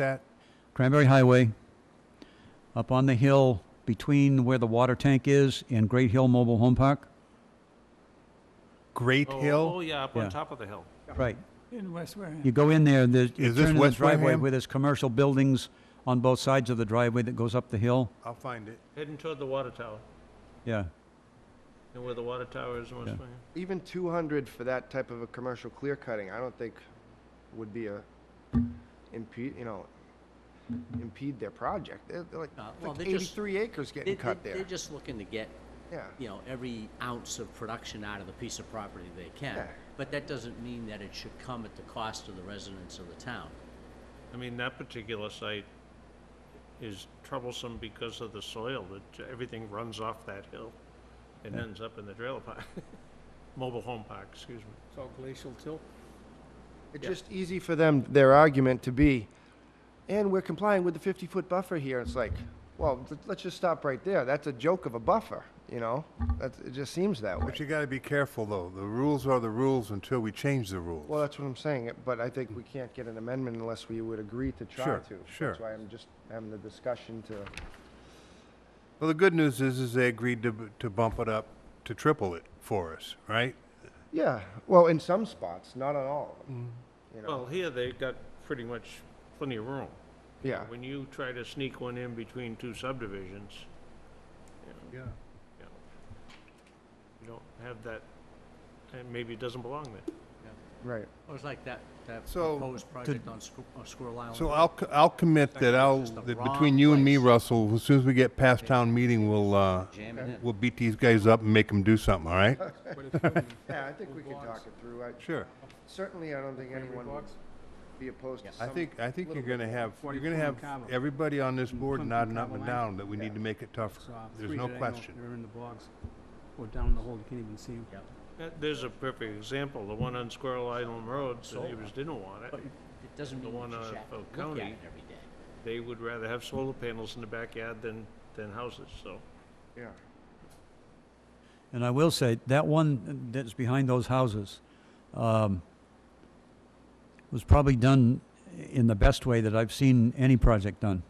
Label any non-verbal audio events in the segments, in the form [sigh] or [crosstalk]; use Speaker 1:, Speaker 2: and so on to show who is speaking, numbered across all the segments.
Speaker 1: that? Cranberry Highway, up on the hill between where the water tank is and Great Hill Mobile Home Park?
Speaker 2: Great
Speaker 3: Oh,
Speaker 2: Hill?
Speaker 3: Oh, yeah, up
Speaker 1: Yeah.
Speaker 3: on top of the hill.
Speaker 1: Right.
Speaker 4: in West Wareham.
Speaker 1: You go in there, and there's, you
Speaker 2: Is this
Speaker 1: turn in the
Speaker 2: West
Speaker 1: driveway
Speaker 2: Wareham?
Speaker 1: where there's commercial buildings on both sides of the driveway that goes up the hill.
Speaker 2: I'll find it.
Speaker 3: Heading toward the water tower,
Speaker 1: Yeah.
Speaker 3: and where the water tower is in West
Speaker 1: Yeah.
Speaker 3: Wareham.
Speaker 5: Even 200 for that type of a commercial clear cutting, I don't think would be a impede, you know, impede their project. They're they're like
Speaker 6: Uh,
Speaker 5: it's
Speaker 6: well,
Speaker 5: like
Speaker 6: they're just-
Speaker 5: 83 acres
Speaker 6: They-
Speaker 5: getting
Speaker 6: they-
Speaker 5: cut there.
Speaker 6: They're just looking to get,
Speaker 5: Yeah,
Speaker 6: you know, every ounce of production out of the piece of property they can.
Speaker 5: Yeah.
Speaker 6: But that doesn't mean that it should come at the cost of the residents of the town.
Speaker 3: I mean, that particular site is troublesome because of the soil, that everything runs off that hill and ends up in the trailer park, [laughs] mobile home park, excuse me.
Speaker 4: It's all glacial till.
Speaker 5: it's just easy for them, their argument to be, and we're complying with the 50-foot buffer here. It's like, well, th- let's just stop right there. That's a joke of a buffer, you know? That's, it just seems that way.
Speaker 2: But you gotta be careful, though. The rules are the rules until we change the rules.
Speaker 5: Well, that's what I'm saying, but I think we can't get an amendment unless we would agree to try
Speaker 2: Sure,
Speaker 5: to.
Speaker 2: sure.
Speaker 5: That's why I'm just having the discussion to,
Speaker 2: Well, the good news is, is they agreed to, b- to bump it up to triple it for us, right?
Speaker 5: yeah, well, in some spots, not on all of them. You know,
Speaker 3: Well, here they've got pretty much plenty of room.
Speaker 5: yeah,
Speaker 3: When you try to sneak one in between two subdivisions,
Speaker 2: Yeah.
Speaker 3: you don't have that, and maybe it doesn't belong there.
Speaker 5: right.
Speaker 6: It was like that, that
Speaker 2: So,
Speaker 6: proposed project on Squir- on Squirrel Island.
Speaker 2: So
Speaker 6: Road.
Speaker 2: I'll, c- I'll commit that I'll,
Speaker 6: Just the
Speaker 2: that
Speaker 6: wrong
Speaker 2: between you and me,
Speaker 6: place.
Speaker 2: Russell, as soon as we get past town meeting, we'll, uh,
Speaker 6: Jam it in.
Speaker 2: we'll beat these guys up and make them do something, all right?
Speaker 4: [laughs]
Speaker 5: Yeah, I think we could talk it through. I-
Speaker 2: Sure.
Speaker 5: Certainly, I don't think anyone would be opposed to
Speaker 2: I
Speaker 5: some.
Speaker 2: think, I think you're
Speaker 5: little
Speaker 2: gonna have, you're gonna have
Speaker 4: Forty-four and Cabo.
Speaker 2: everybody on this
Speaker 4: And
Speaker 2: board
Speaker 4: Plymouth
Speaker 2: nodding
Speaker 4: and
Speaker 2: up
Speaker 4: Cabo
Speaker 2: and
Speaker 4: Lang.
Speaker 2: down that we need to make it tougher.
Speaker 4: So, uh,
Speaker 2: There's
Speaker 4: three
Speaker 2: no
Speaker 4: that I know
Speaker 2: question.
Speaker 4: They're in the bogs, or down the hole, you can't even see them.
Speaker 6: Yep.
Speaker 3: That- There's a perfect example, the one on Squirrel Island Road, the
Speaker 6: Solar.
Speaker 3: neighbors didn't want it.
Speaker 6: But it doesn't
Speaker 3: The
Speaker 6: mean
Speaker 3: one
Speaker 6: that you should
Speaker 3: on
Speaker 6: have to
Speaker 3: Oak
Speaker 6: look at
Speaker 3: County.
Speaker 6: it every day.
Speaker 3: They would rather have solar panels in the backyard than, than houses, so.
Speaker 5: Yeah,
Speaker 1: And I will say, that one that's behind those houses um, was probably done in the best way that I've seen any project done.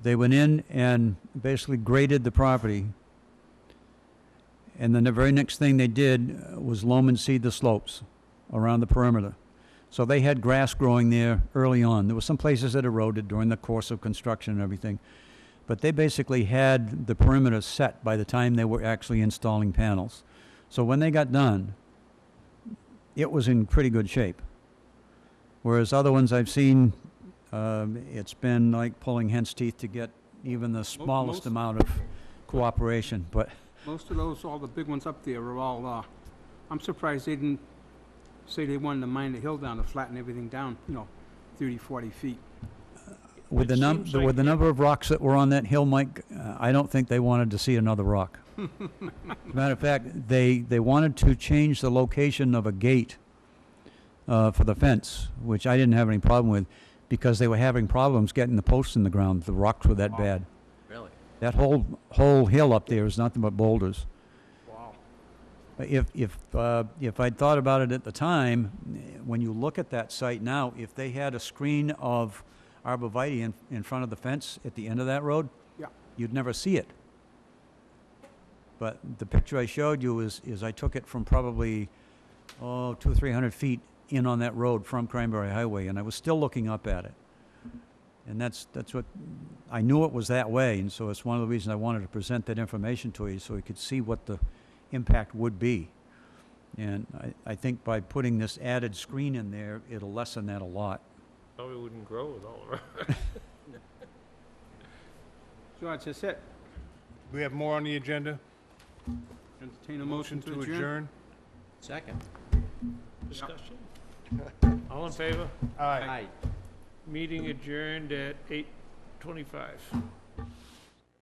Speaker 1: They went in and basically graded the property, and then the very next thing they did uh, was loam and seed the slopes around the perimeter. So they had grass growing there early on. There were some places that eroded during the course of construction and everything. But they basically had the perimeter set by the time they were actually installing panels. So when they got done, it was in pretty good shape. Whereas other ones I've seen, um, it's been like pulling hen's teeth to get even the smallest
Speaker 4: most-
Speaker 1: amount of cooperation, but
Speaker 4: Most of those, all the big ones up there are all, uh, I'm surprised they didn't say they wanted to mine the hill down to flatten everything down, you know, 30, 40 feet.
Speaker 1: with the
Speaker 3: It
Speaker 1: num,
Speaker 3: seems
Speaker 1: with
Speaker 3: like-
Speaker 1: the number of rocks that were on that hill, Mike, uh, I don't think they wanted to see another
Speaker 3: [laughs]
Speaker 1: rock. As a Matter of fact, they, they wanted to change the location of a gate, uh, for the fence, which I didn't have any problem with, because they were having problems getting the posts in the ground, the rocks were that bad.
Speaker 6: Really?
Speaker 1: That whole, whole hill up there is nothing but boulders.
Speaker 4: Wow.
Speaker 1: If, if, uh, if I'd thought about it at the time, eh, when you look at that site now, if they had a screen of arborvitae in, in front of the fence at the end of that road,
Speaker 4: Yeah.
Speaker 1: you'd never see it. But the picture I showed you is, is I took it from probably, oh, two, three hundred feet in on that road from Cranberry Highway, and I was still looking up at it. And that's, that's what, I knew it was that way, and so it's one of the reasons I wanted to present that information to you, so you could see what the impact would be. And I, I think by putting this added screen in there, it'll lessen that a lot.
Speaker 3: Probably wouldn't grow with all of our [laughs]
Speaker 4: George, that's it.
Speaker 2: We have more on the agenda?
Speaker 4: Entertain a motion to adjourn.
Speaker 6: Second.
Speaker 3: discussion. All in favor?
Speaker 2: Aye.
Speaker 6: Aye.
Speaker 3: Meeting adjourned at eight twenty-five.